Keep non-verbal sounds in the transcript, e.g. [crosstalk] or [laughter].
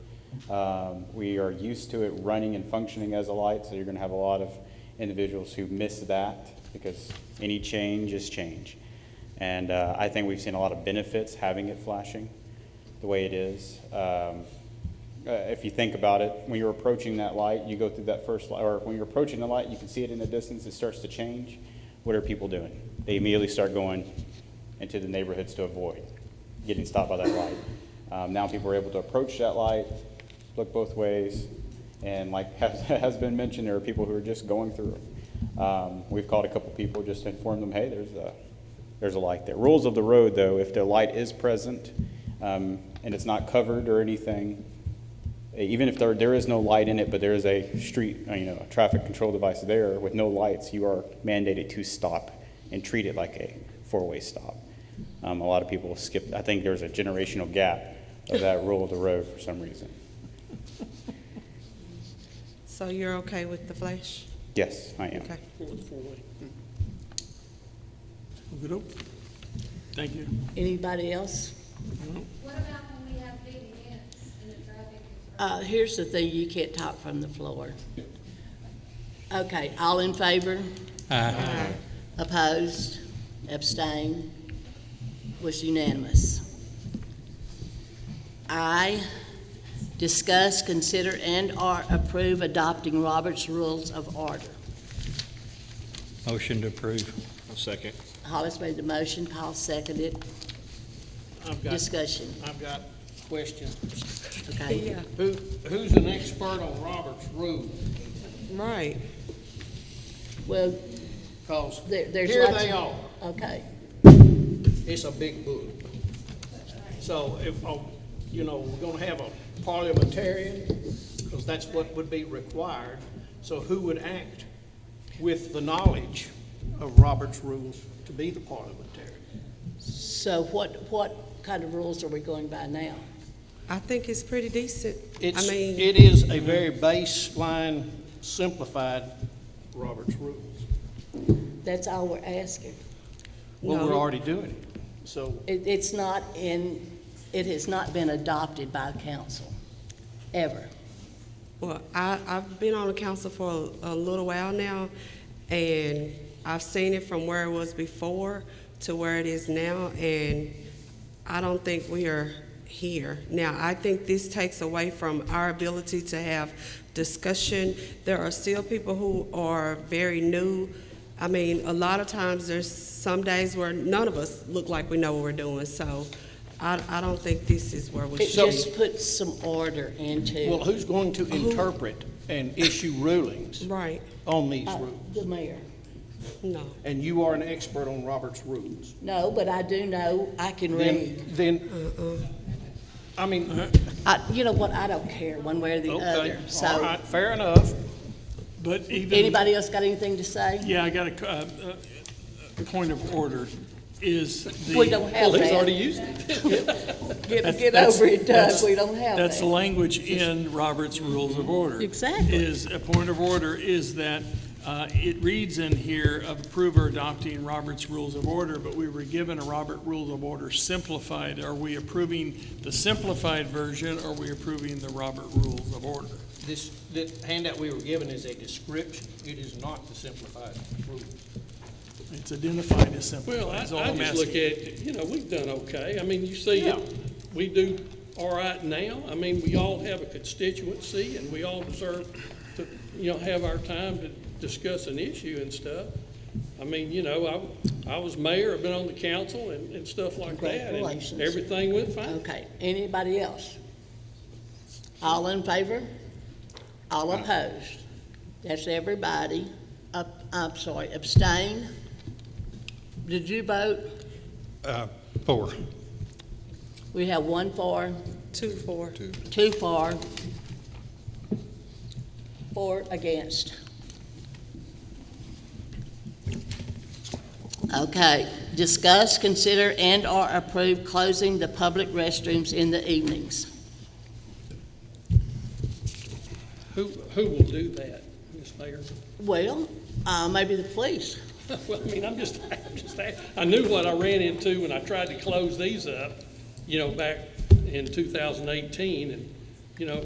Um, We are used to it running and functioning as a light, so you're going to have a lot of individuals who miss that because any change is change. And uh, I think we've seen a lot of benefits having it flashing the way it is. Um, uh, If you think about it, when you're approaching that light, you go through that first, li- or when you're approaching the light, you can see it in the distance, it starts to change. What are people doing? They immediately start going into the neighborhoods to avoid getting stopped by that light. Um, Now people are able to approach that light, look both ways, and like [laughs] has- has been mentioned, there are people who are just going through it. Um, We've called a couple people just to inform them, hey, there's a, there's a light there. Rules of the road, though, if the light is present um, and it's not covered or anything, even if there, there is no light in it, but there is a street, uh, you know, a traffic control device there with no lights, you are mandated to stop and treat it like a four-way stop. Um, a lot of people skip, I think there's a generational gap of that rule of the road for some reason. So you're okay with the flash? Yes, I am. Okay. Okey-doke. Thank you. Anybody else? What about when we have big events and the traffic is Uh, here's the thing, you can't talk from the floor. Okay, all in favor? Aye. Opposed? Abstained? Was unanimous. I, discuss, consider, and/or approve adopting Robert's Rules of Order. Motion to approve. Second. Hollis made the motion, Paul seconded. I've got, Discussion, I've got questions. okay? Who, who's an expert on Robert's rule? Right. Well, Cause there, there's here lots they of- are. Okay, It's a big book. So if, oh, you know, we're gonna have a parliamentarian, cause that's what would be required. So who would act with the knowledge of Robert's rules to be the parliamentarian? so what, what kind of rules are we going by now? I think it's pretty decent. I It's, mean, it is a very baseline, simplified Robert's rules. That's all we're asking. Well, we're No. already doing it, so. It, it's not in, it has not been adopted by council, ever. well, I, I've been on the council for a, a little while now, and I've seen it from where it was before to where it is now, and I don't think we are here. Now, I think this takes away from our ability to have discussion. There are still people who are very new. I mean, a lot of times, there's some days where none of us look like we know what we're doing, so I, I don't think this is where we It should be. just puts some order Well, into who's going to interpret and issue rulings Right, on these uh, rules? the mayor. no. And you are an expert on Robert's rules. No, but I do know, I can Then, read. then, I mean, I, you know what, I don't care one way or the okay, other, all so. right, fair enough. But even. Anybody else got anything to say? Yeah, I got a, uh, uh, a point of order is the. We don't have Well, he's already that. used it. Get, That's- get that's- over it, Doug, that's- we don't have That's the that. language in Robert's Rules of Order. Exactly. Is, a point of order is that uh, it reads in here of approve or adopting Robert's Rules of Order, but we were given a Robert Rules of Order simplified. Are we approving the simplified version or are we approving the Robert Rules of Order? This, the handout we were given is a description, it is not the simplified rules. It's identified as simplified. Well, I, is all I I'm just asking. look at, you know, we've done okay. I mean, you see, Yeah. it. we do all right now. I mean, we all have a constituency and we all deserve to, you know, have our time to discuss an issue and stuff. I mean, you know, I, I was mayor, I've been on the council and, and stuff like that. Congratulations. Uh, And everything went fine. Okay, anybody else? All in favor? All opposed? That's everybody. Up, I'm sorry, abstain? Did you vote? Uh, Four. We have one for, Two, four. two for, four against. Okay, discuss, consider, and/or approve closing the public restrooms in the evenings. Who, who will do that, Ms. Mayor? Well, uh, maybe the police. [laughs] Well, I mean, I'm just, I'm just, I knew what I ran into when I tried to close these up, you know, back in 2018, and